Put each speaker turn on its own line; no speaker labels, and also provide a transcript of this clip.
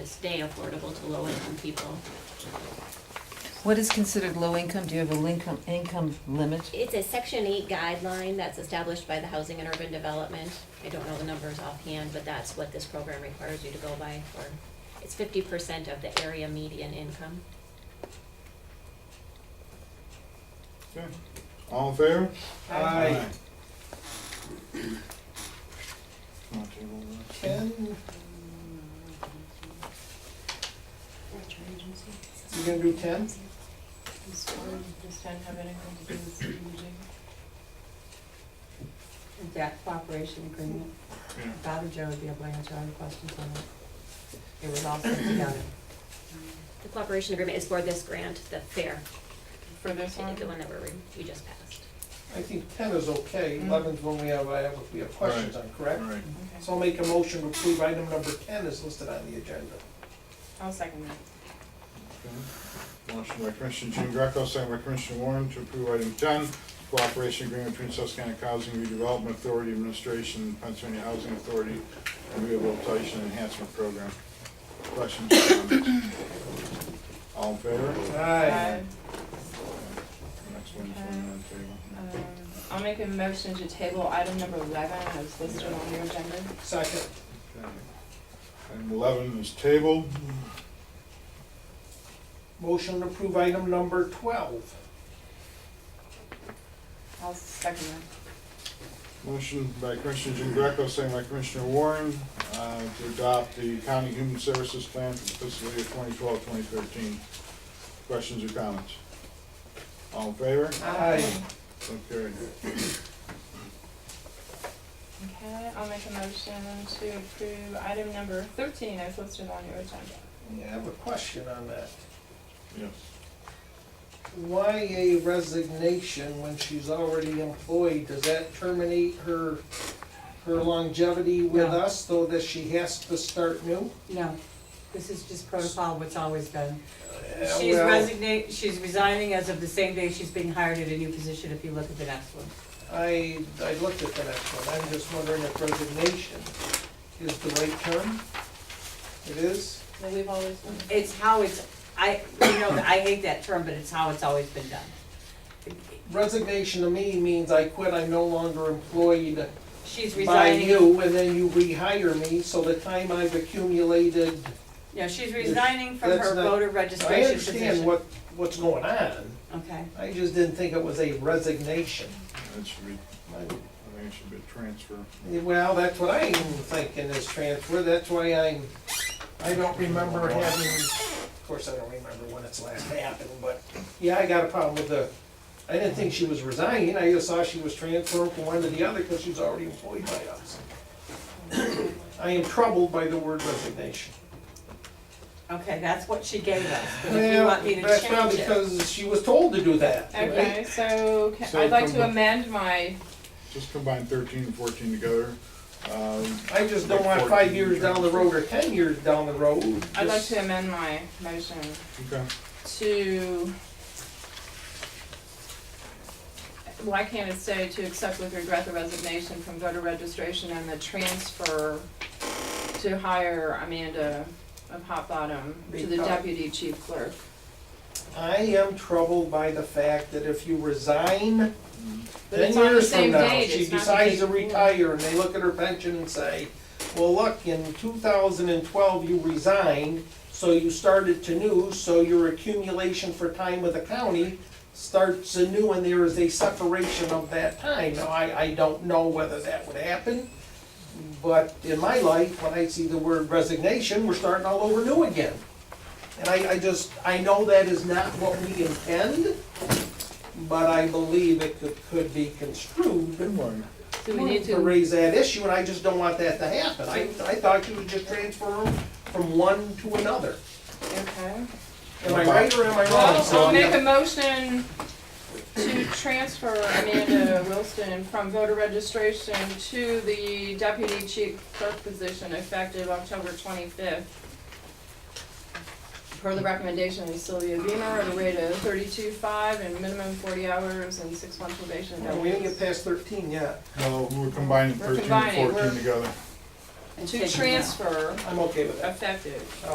stay affordable to low-income people.
What is considered low income? Do you have a income, income limit?
It's a section eight guideline that's established by the Housing and Urban Development. I don't know the numbers offhand, but that's what this program requires you to go by for. It's fifty percent of the area median income.
Okay. All in favor?
Aye.
I'll table that.
You gonna do ten?
Does ten have anything to do with CDBG?
Is that cooperation agreement?
Yeah.
Bob and Joe would be able to answer all the questions on it. It was all put together.
The cooperation agreement is for this grant, the fair,
For this one?
the one that we're, we just passed.
I think ten is okay, eleven's when we have, I have, we have questions on, correct?
All right.
Okay.
So I'll make a motion to approve item number ten is listed on the agenda.
I'll second that.
Okay. Motion by Commissioner Jean Greco, second by Commissioner Warren to approve item ten, cooperation agreement between Susquehanna Housing Redevelopment Authority Administration and Pennsylvania Housing Authority and Rehabilitation Enhancement Program. Questions or comments? All in favor?
Aye.
Next one's on the table.
Um, I'll make a motion to table item number eleven as listed on your agenda.
Second.
Okay. Item eleven is tabled.
Motion to approve item number twelve.
I'll second that.
Motion by Commissioner Jean Greco, second by Commissioner Warren, uh, to adopt the County Human Services Plan for the fiscal year 2012-2013. Questions or comments? All in favor?
Aye.
So carried.
Okay, I'll make a motion to approve item number thirteen as listed on your agenda.
Yeah, I have a question on that.
Yes.
Why a resignation when she's already employed? Does that terminate her, her longevity with
No.
us, though that she has to start new?
No, this is just protocol, what's always been.
Yeah,
She's
well-
resignate, she's resigning as of the same day she's being hired at a new position, if you look at the next one.
I, I looked at the next one, I'm just wondering if resignation is the right term? It is?
That we've always done.
It's how it's, I, you know, I hate that term, but it's how it's always been done.
Resignation to me means I quit, I'm no longer employed
She's
by
resigning.
you, and then you rehire me, so the time I've accumulated,
No, she's resigning from
That's
her
not-
voter
I
registration position.
understand what, what's going on.
Okay,
I just didn't think it was a resignation.
That should be, I think it should be a transfer.
Well, that's what I'm thinking is transfer, that's why I'm, I don't remember having, of course, I don't remember when it's last happened, but, yeah, I got a problem with the, I didn't think she was resigning, I just saw she was transferring from one to the other because she was already employed by us. I am troubled by the word resignation.
okay, that's what she gave us, but if you
Well,
want me to
that's
change
probably
it.
because she was told to do that, right?
Okay, so ca-
So
I'd like to
from-
amend my,
Just combine thirteen and fourteen together. Um,
I just don't want five years down the road or ten years down the road.
I'd like
just-
to amend my motion
okay,
to, why can't it say to accept with regret the resignation from voter registration and the transfer to hire Amanda of Hot Bottom to the
Retired.
deputy chief clerk?
I am troubled by the fact that if you resign
But
ten
it's on the
years from
same
now,
date,
she
it's not the
decides to
day before.
retire, and they look at her pension and say, well, look, in two thousand and twelve, you resigned, so you started to new, so your accumulation for time with the county starts anew, and there is a separation of that time. Now, I, I don't know whether that would happen, but in my life, when I see the word resignation, we're starting all over new again. And I, I just, I know that is not what we intend, but I believe it could, could be
good
construed
one.
So we need
to
to,
raise that issue, and I just don't want that to happen. I, I thought you would just transfer 'em from one to another.
okay.
Am I right or am I wrong?
Well, I'll make
Sylvia?
a motion to transfer Amanda Wilson from voter registration to the deputy chief clerk position effective October twenty-fifth. Per the recommendation of Sylvia Beamer at a rate of thirty-two-five and minimum forty hours and six month probation.
No, We didn't get past thirteen yet.
No, we're combining
We're
thirteen and
combining,
fourteen
we're-
together.
And
To
taking it out.
transfer
I'm okay with that.
effective.